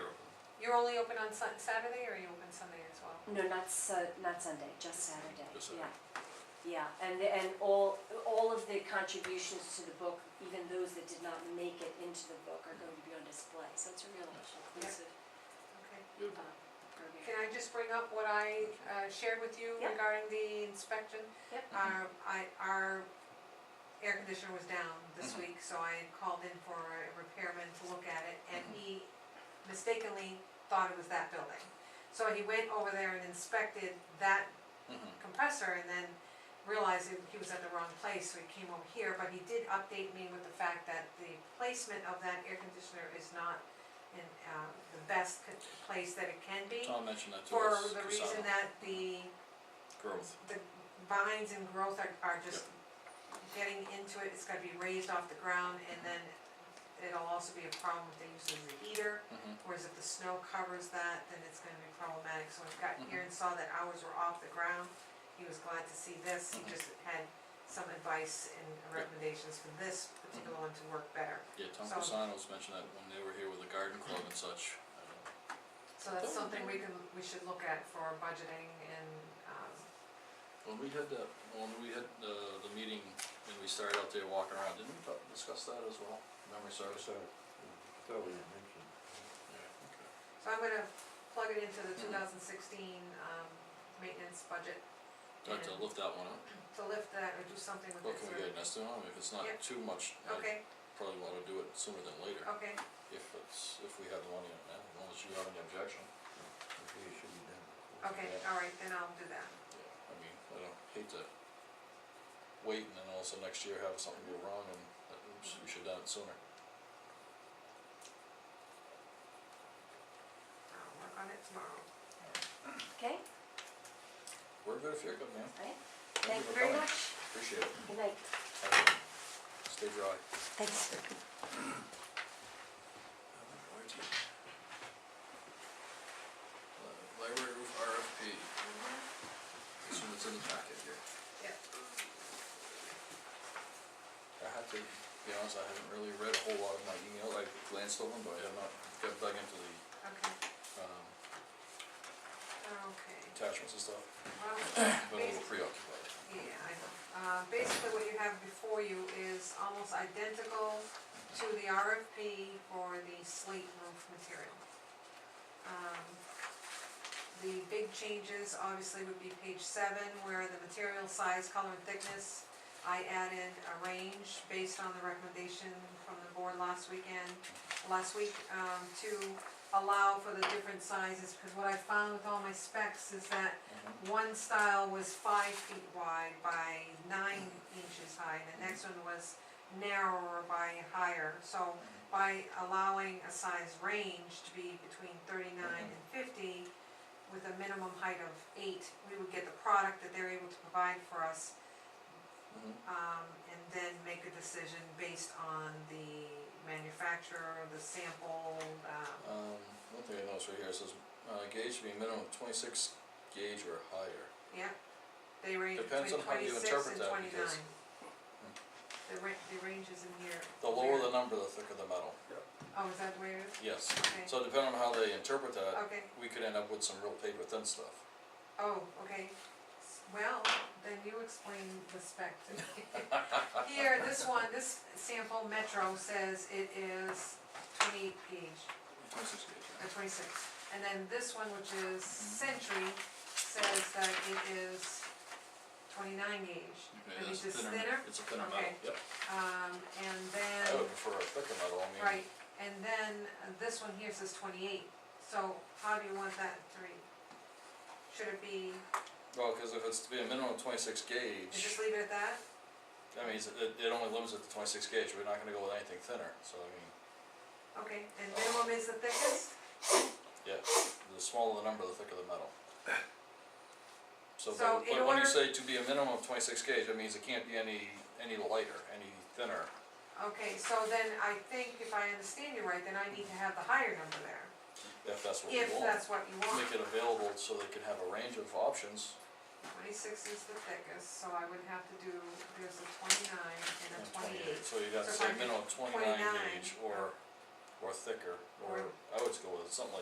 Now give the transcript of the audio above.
Mm-hmm. You're only open on Sun- Saturday or are you open Sunday as well? No, not Su- not Sunday, just Saturday, Just Saturday. yeah. Yeah, and, the- and all, all of the contributions to the book, even those that did not make it into the book, are going to be on display, so it's a real inclusive Okay. Good. uh, program. Can I just bring up what I uh, shared with you Yep. regarding the inspection? Yep. Our, I, our air conditioner was down this Mhm. week, so I had called in for a repairman to look at it, and he mistakenly thought it was that building. So he went over there and inspected that Mhm. compressor and then realized that he was at the wrong place, so he came over here, but he did update me with the fact that the placement of that air conditioner is not in, uh, the best co- place that it can be. Tom mentioned that to For us, the Cassano, reason that the, growth, the vines and growth are, are just getting into it, it's gotta be raised off the ground, and then it'll also be a problem if they use it as a heater, Mhm. whereas if the snow covers that, then it's gonna be problematic, so when I got here Mhm. and saw that ours were off the ground, he was glad to see this, he Mhm. just had some advice and recommendations for this particular one to work better. yeah, Tom So- Casano's mentioned that when they were here with the garden club and such, I don't know. So that's something we can, we should look at for budgeting and, um, When we had the, when we had the, the meeting, and we started out there walking around, didn't we talk- discuss that as well, memory service? So, I thought we had mentioned. Yeah, So I'm gonna plug it into the two Mhm. thousand sixteen, um, maintenance budget okay, I'd like to lift that one up, to lift that or do something with what it. can so- we get an estimate on, if it's not Yeah. too much, I Okay, Oh. probably wanna do it sooner than later, okay, if it's, if we have the money on that, unless you have any objection. Okay, it should be done. before. okay, Yeah. alright, then I'll do that. Yeah, I mean, I don't hate to wait and then also next year have something go wrong and, uh, oops, we should have done it sooner. I'll work on it tomorrow. Okay, We're good if you're good, man. alright, Thank thank you for very coming. much, Appreciate it. good night, Have a- Stay dry. thanks. Uh, Library roof RFP, this one's in the packet here. Mm-hmm. Yep. I have to be honest, I haven't really read a whole lot of my email, I glanced over them, but I have not got dug into the, Okay, um, okay, attachments and stuff, well, been a little preoccupied. Yeah, I know. Uh, basically what you have before you is almost identical to the RFP for the slate roof material. Um, The big changes obviously would be page seven, where the material size, color and thickness, I added a range based on the recommendation from the board last weekend, last week, um, to allow for the different sizes, because what I found with all my specs is that Mhm. one style was five feet wide by nine inches high, and the next one was narrower by higher. So by allowing a size range to be between thirty-nine and fifty with a minimum height of eight, we would get the product that they're able to provide for us, Mhm. um, and then make a decision based on the manufacturer, the sample, um, Um, one thing I noticed right here, it says, uh, gauge should be a minimum of twenty-six gauge or higher. yeah. They range Depends between on how you twenty-six interpret and that, twenty-nine. because- The ra- the range is in here. The lower the number, the thicker the metal, Oh, is that where it is? yes. Okay, So uh, depending on how they interpret that, okay, we could end up with some real paid within stuff. oh, okay. S- Well, then you explain the spec to me. Here, this one, this sample Metro says it is twenty-eight gauge, Twenty-six gauge, or twenty-six. And then this one, which is Century, says that it is twenty-nine gauge. Okay, And that's it's just thinner, Oh, thinner? it's a thinner metal, Okay. yep. Um, and I then, would prefer a thicker metal, I mean. right, and then uh, this one here says twenty-eight. So how do you want that three? Should it be Well, cause if it's to be a minimum of twenty-six And just gauge, leave it at that? that means it, it- it only limits it to twenty-six gauge, we're not gonna go with anything thinner, so I mean, Okay, and minimum is the thickest? yeah, the smaller the number, the thicker the metal. So, So but in but when order- you say to be a minimum of twenty-six gauge, that means it can't be any, any lighter, any thinner. Okay, so then I think if I understand you right, then I need to have the higher number there, If that's what we if want, that's what you want. make it available so they can have a range of options, Twenty-six is the thickest, so I would have to do, there's a twenty-nine and a and twenty-eight, twenty-eight. so you'd have to So say if I do minimum twenty-nine 29, gauge or, or thicker, or, Or- I would go with something like